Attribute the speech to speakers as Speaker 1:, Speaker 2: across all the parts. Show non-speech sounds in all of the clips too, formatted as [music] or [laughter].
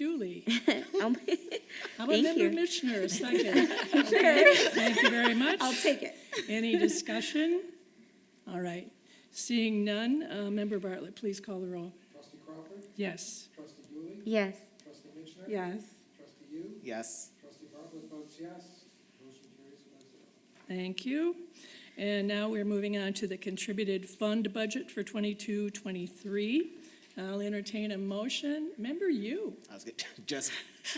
Speaker 1: [laughs]
Speaker 2: Julie.
Speaker 1: I'll-
Speaker 2: How about
Speaker 1: Thank
Speaker 2: member
Speaker 1: you.
Speaker 2: Lishner, a
Speaker 1: [laughs]
Speaker 2: second? Thank you very much.
Speaker 1: I'll take it.
Speaker 2: Any discussion? All right. Seeing none, uh, Member Bartlett, please call the roll.
Speaker 3: Trustee Crawford,
Speaker 2: Yes.
Speaker 3: trustee Dooley,
Speaker 1: Yes.
Speaker 3: trustee Mitchner.
Speaker 1: Yes.
Speaker 3: Trustee Yu,
Speaker 4: Yes.
Speaker 3: trustee Bartlett votes yes. Motion carries five zero.
Speaker 2: Thank you. And now we're moving on to the contributed fund budget for 22-23. twenty-three. I'll entertain a motion. Member you.
Speaker 4: I was good. [laughs] just,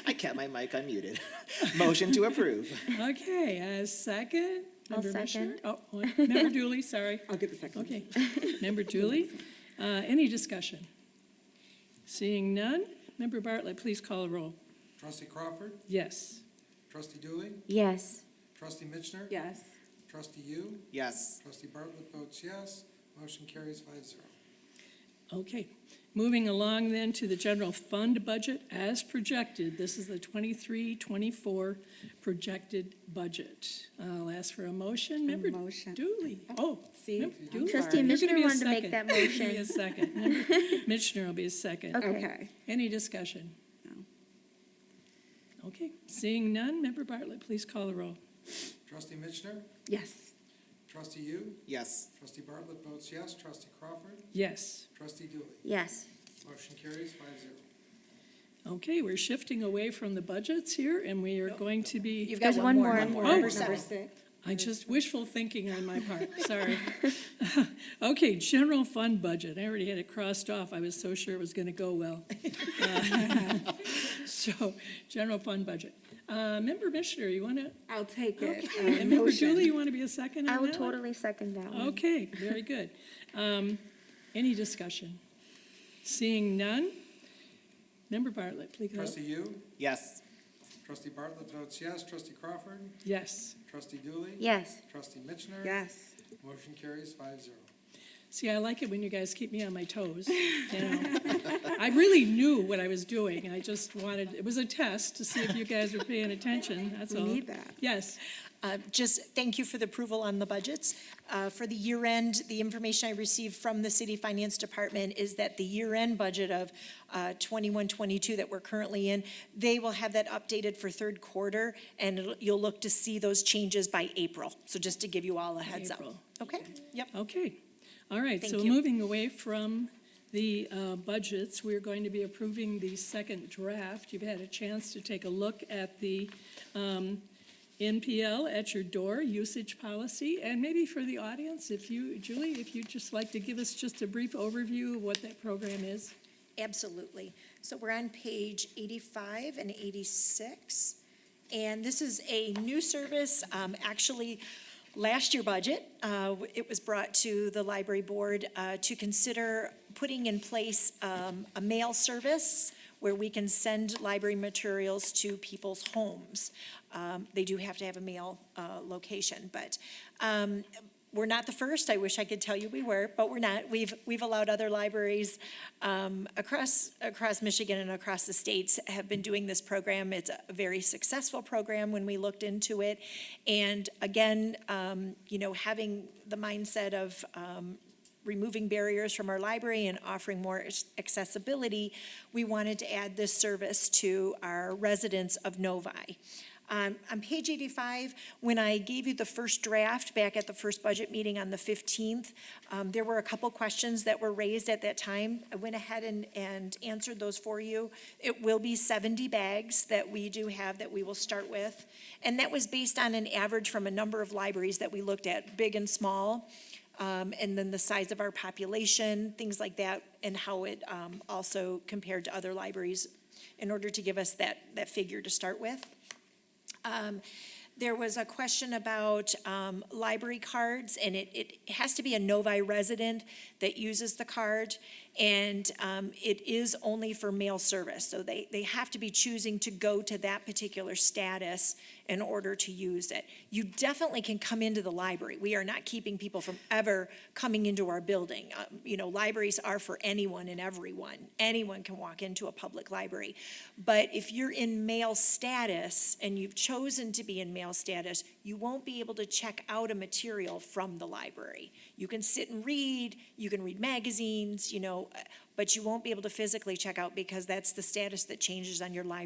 Speaker 4: I kept my mic unmuted. [laughs] Motion to approve.
Speaker 2: Okay, a second.
Speaker 1: I'll
Speaker 2: Member Mishner? Oh, one- Member Dooley, sorry.
Speaker 5: I'll get the second.
Speaker 2: Okay. Member Dooley, uh, any discussion? Seeing none, Member Bartlett, please call a roll.
Speaker 3: Trustee Crawford,
Speaker 2: Yes.
Speaker 3: trustee Dooley,
Speaker 1: Yes.
Speaker 3: trustee Mitchner.
Speaker 5: Yes.
Speaker 3: Trustee Yu,
Speaker 4: Yes.
Speaker 3: trustee Bartlett votes yes. Motion carries five zero.
Speaker 2: Okay, moving along then to the general fund budget as projected. This is the 23-24 projected budget. I'll ask for a motion. Member
Speaker 5: motion.
Speaker 2: Dooley. Oh,
Speaker 5: See?
Speaker 2: Member
Speaker 5: I'm
Speaker 2: Dooley.
Speaker 1: Trustee
Speaker 2: You're gonna
Speaker 1: Mitchner
Speaker 2: be a
Speaker 1: wanted to make
Speaker 2: second.
Speaker 1: that
Speaker 2: You're gonna be a
Speaker 1: motion.
Speaker 2: second.
Speaker 1: [laughs]
Speaker 2: Member Mitchner will be a second.
Speaker 1: Okay.
Speaker 5: Okay.
Speaker 2: Any discussion?
Speaker 5: No.
Speaker 2: Okay, seeing none, Member Bartlett, please call the roll.
Speaker 3: Trustee Mitchner,
Speaker 5: Yes.
Speaker 3: trustee Yu,
Speaker 4: Yes.
Speaker 3: trustee Bartlett votes yes. Trustee Crawford,
Speaker 2: Yes.
Speaker 3: trustee Dooley.
Speaker 1: Yes.
Speaker 3: Motion carries five zero.
Speaker 2: Okay, we're shifting away from the budgets here, and we are going to be.
Speaker 5: You've
Speaker 1: There's one more.
Speaker 5: Number
Speaker 2: Oh,
Speaker 5: number six.
Speaker 2: I just wishful thinking on my part, sorry. [laughs] Okay, general fund budget, I already had it crossed off, I was so sure it was gonna go well. Uh, So, general fund budget. Uh, Member Missioner, you wanna,
Speaker 5: I'll take it. Uh,
Speaker 2: and Member
Speaker 5: motion.
Speaker 2: Julie, you wanna be a second
Speaker 1: I
Speaker 2: on
Speaker 1: will
Speaker 2: that one?
Speaker 1: totally second that one.
Speaker 2: Okay, very good. Um, any discussion? Seeing none? Member Bartlett, please. go.
Speaker 3: Trustee Yu,
Speaker 4: Yes.
Speaker 3: trustee Bartlett votes yes. Trustee Crawford,
Speaker 2: Yes.
Speaker 3: trustee Dooley.
Speaker 1: Yes.
Speaker 3: Trustee Mitchner.
Speaker 5: Yes.
Speaker 3: Motion carries five zero.
Speaker 2: See, I like it when you guys keep me on my
Speaker 5: [laughs]
Speaker 2: toes. You know, I really knew what I was doing. I just wanted, it was a test to see if you guys were paying attention, that's
Speaker 5: We
Speaker 2: all.
Speaker 5: need that.
Speaker 2: Yes,
Speaker 6: Uh, Just thank you for the approval on the budgets. Uh, For the year-end, the information I received from the city finance department is that the year-end budget of uh, 21, 22 that we're currently in, they will have that updated for third quarter, and it'll- you'll look to see those changes by April. So just to give you all a heads up.
Speaker 2: April.
Speaker 6: Okay? Yep.
Speaker 2: okay. All right, so
Speaker 6: Thank you.
Speaker 2: moving away from the uh, budgets, we're going to be approving the second draft. You've had a chance to take a look at the um, NPL at your door usage policy. And maybe for the audience, if you, Julie, if you'd just like to give us just a brief overview of what that program is?
Speaker 6: Absolutely. So we're on page 85 and 86. And this is a new service, um, actually, last year budget, uh, w- it was brought to the library board uh, to consider putting in place um, a mail service where we can send library materials to people's homes. Um, They do have to have a mail uh, location, but um, we're not the first. I wish I could tell you we were, but we're not. We've, we've allowed other libraries um, across, across Michigan and across the states have been doing this program. It's a very successful program when we looked into it. And again, um, you know, having the mindset of um, removing barriers from our library and offering more ac- accessibility, we wanted to add this service to our residents of Novi. Um, On page 85, when I gave you the first draft back at the first budget meeting on the 15th, um, there were a couple questions that were raised at that time. I went ahead and, and answered those for you. It will be 70 bags that we do have that we will start with. And that was based on an average from a number of libraries that we looked at, big and small um, and then the size of our population, things like that, and how it um, also compared to other libraries in order to give us that, that figure to start with. Um, There was a question about um, library cards, and it, it has to be a Novi resident that uses the card, and um, it is only for mail service, so they, they have to be choosing to go to that particular status in order to use it. You definitely can come into the library. We are not keeping people from ever coming into our building. Um, You know, libraries are for anyone and everyone. Anyone can walk into a public library. But if you're in mail status and you've chosen to be in mail status, you won't be able to check out a material from the library. You can sit and read, you can read magazines, you know, uh, but you won't be able to physically check out because that's the status that changes on your library